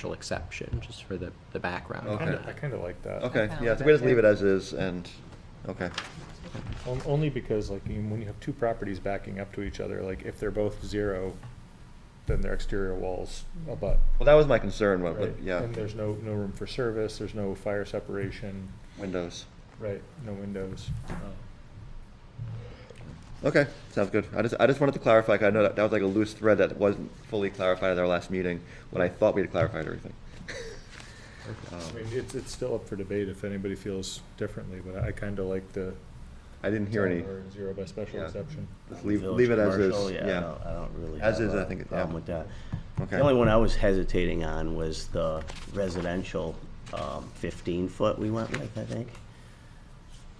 special exception, just for the, the background. on Okay. that. I kind of like that. Okay, found yeah, so we just it. leave it as is and, okay. On- Only because like you- when you have two properties backing up to each other, like if they're both zero, then their exterior walls abut. Well, that was my concern, but, Right? but, yeah, And there's no, no room for service, there's no fire separation, windows. Oh. right, no windows. Okay, sounds good. I just, I just wanted to clarify, 'cause I know that, that was like a loose thread that wasn't fully clarified at our last meeting, when I thought we had clarified everything. I Um, mean, it's, it's still up for debate if anybody feels differently, but I kind of like the. I didn't hear any, Or Zero by special Yeah. exception. just leave, Village leave it as commercial, is, I yeah. don't- I don't really As have is, a I think it- yeah. problem with that. Okay. The only one I was hesitating on was the residential um, 15-foot we went with, I think.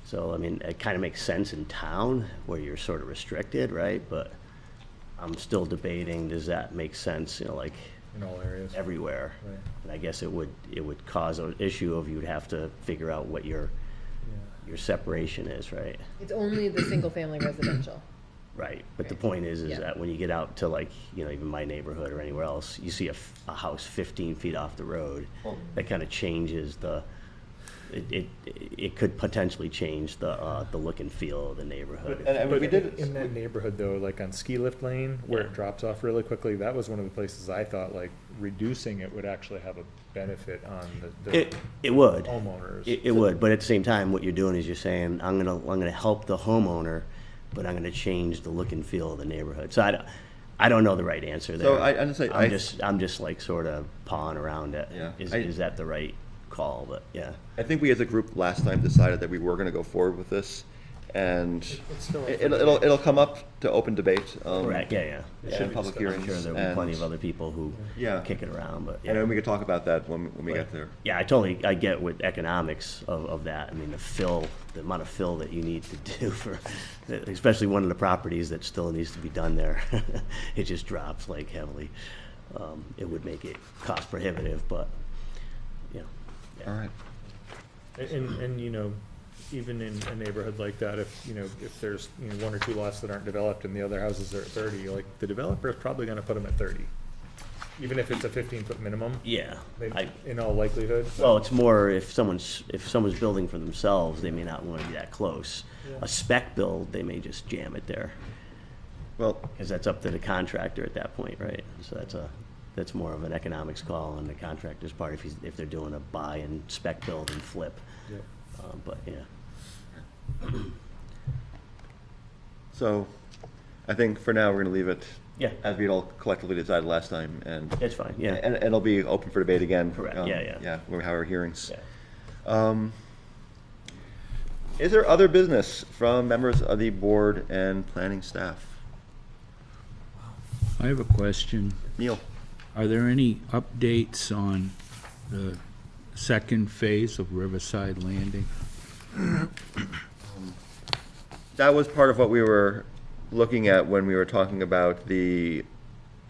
So, I mean, it kind of makes sense in town where you're sort of restricted, right? But I'm still debating, does that make sense, you know, like In all areas. everywhere? Right. And I guess it would, it would cause an issue of you'd have to figure out what your, Yeah. your separation is, right? It's only the single-family residential. Right, but the Right. point is, is Yeah. that when you get out to like, you know, even my neighborhood or anywhere else, you see a, f- a house fifteen feet off the road, that kind of changes the, it, it, it could potentially change the, uh, the look and feel of the neighborhood. And, and But we did, in that neighborhood though, like on ski lift lane, where it drops off really quickly, that was one of the places I thought like reducing it would actually have a benefit on the, the It, it would. homeowners. It, it would, but at the same time, what you're doing is you're saying, I'm gonna, I'm gonna help the homeowner, but I'm gonna change the look and feel of the neighborhood. So I don't, I don't know the right answer there. So I- I didn't say- I- I'm just, I'm just like sort of pawing around it. Yeah, Is, I- is that the right call? But, yeah. I think we as a group last time decided that we were gonna go forward with this, and it's still up it- for it'll, it'll, it'll come up to open debate. um, Correct, yeah, yeah. And public I'm hearings. sure there'll be and- plenty of other people who Yeah. kick it around, but, And yeah. then we could talk about that when, when we get there. Yeah, I totally, I get with economics of, of that. I mean, the fill, the amount of fill that you need to do for, especially one of the properties that still needs to be done there. It just drops like heavily. Um, it would make it cost prohibitive, but, you know, All right. And, and, you know, even in a neighborhood like that, if, you know, if there's, you know, one or two lots that aren't developed and the other houses are at thirty, like, the developer's probably gonna put them at thirty. Even if it's a fifteen-foot minimum, yeah. they- I, in all likelihood. Well, it's more if someone's, if someone's building for themselves, they may not want to be that close. Yeah. A spec build, they may just jam it there. Well, Because that's up to the contractor at that point, right? So that's a, that's more of an economics call on the contractor's part if he's, if they're doing a buy and spec build and flip. Yep. Uh, But, yeah, so I think for now, we're gonna leave it. Yeah. As we all collectively decided last time, and. it's fine, yeah. And and it'll be open for debate again. Correct, um, yeah, yeah. Yeah, when we have our hearings. Yeah. Um, Is there other business from members of the board and planning staff? I have a question. Neil? Are there any updates on the second phase of Riverside Landing? That was part of what we were looking at when we were talking about the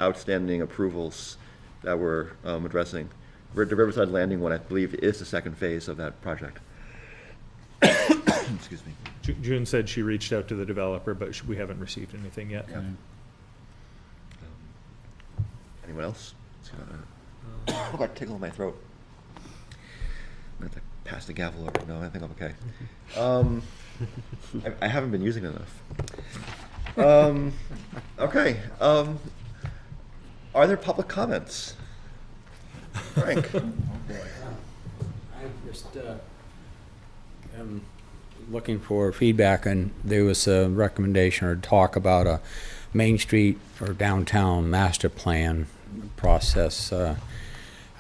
outstanding approvals that we're um, addressing. Ri- The Riverside Landing one, I believe, is the second phase of that project. Excuse me. Ju- June said she reached out to the developer, but sh- we haven't received anything yet. Yeah. Anyone else? Let's see if I- I've got a tickle in my throat. I'm gonna have to pass the gavel over. No, I think I'm okay. Um, I, I haven't been using it enough. Um, okay. Um, are there public comments? Frank? I just uh, am looking for feedback, and there was a recommendation or talk about a Main Street or downtown master plan process. Uh,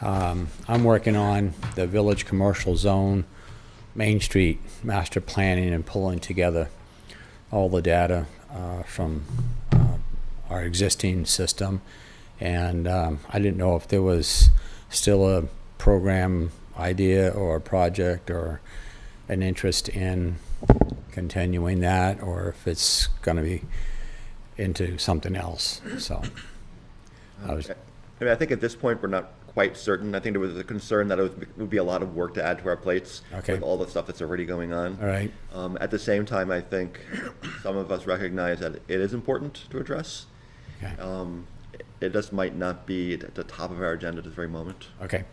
um, I'm working on the Village Commercial Zone, Main Street master planning and pulling together all the data uh, from uh, our existing system. And um, I didn't know if there was still a program idea or a project or an interest in continuing that or if it's going to be into something else. So I was, I mean, I think at this point, we're not quite certain. I think there was a concern that it would be- would be a lot of work to add to our plates Okay. with all the stuff that's already going on. all right. Um, at the same time, I think some of us recognize that it is important to address. Okay. Um, it just might not be at the top of our agenda at this very moment. Okay.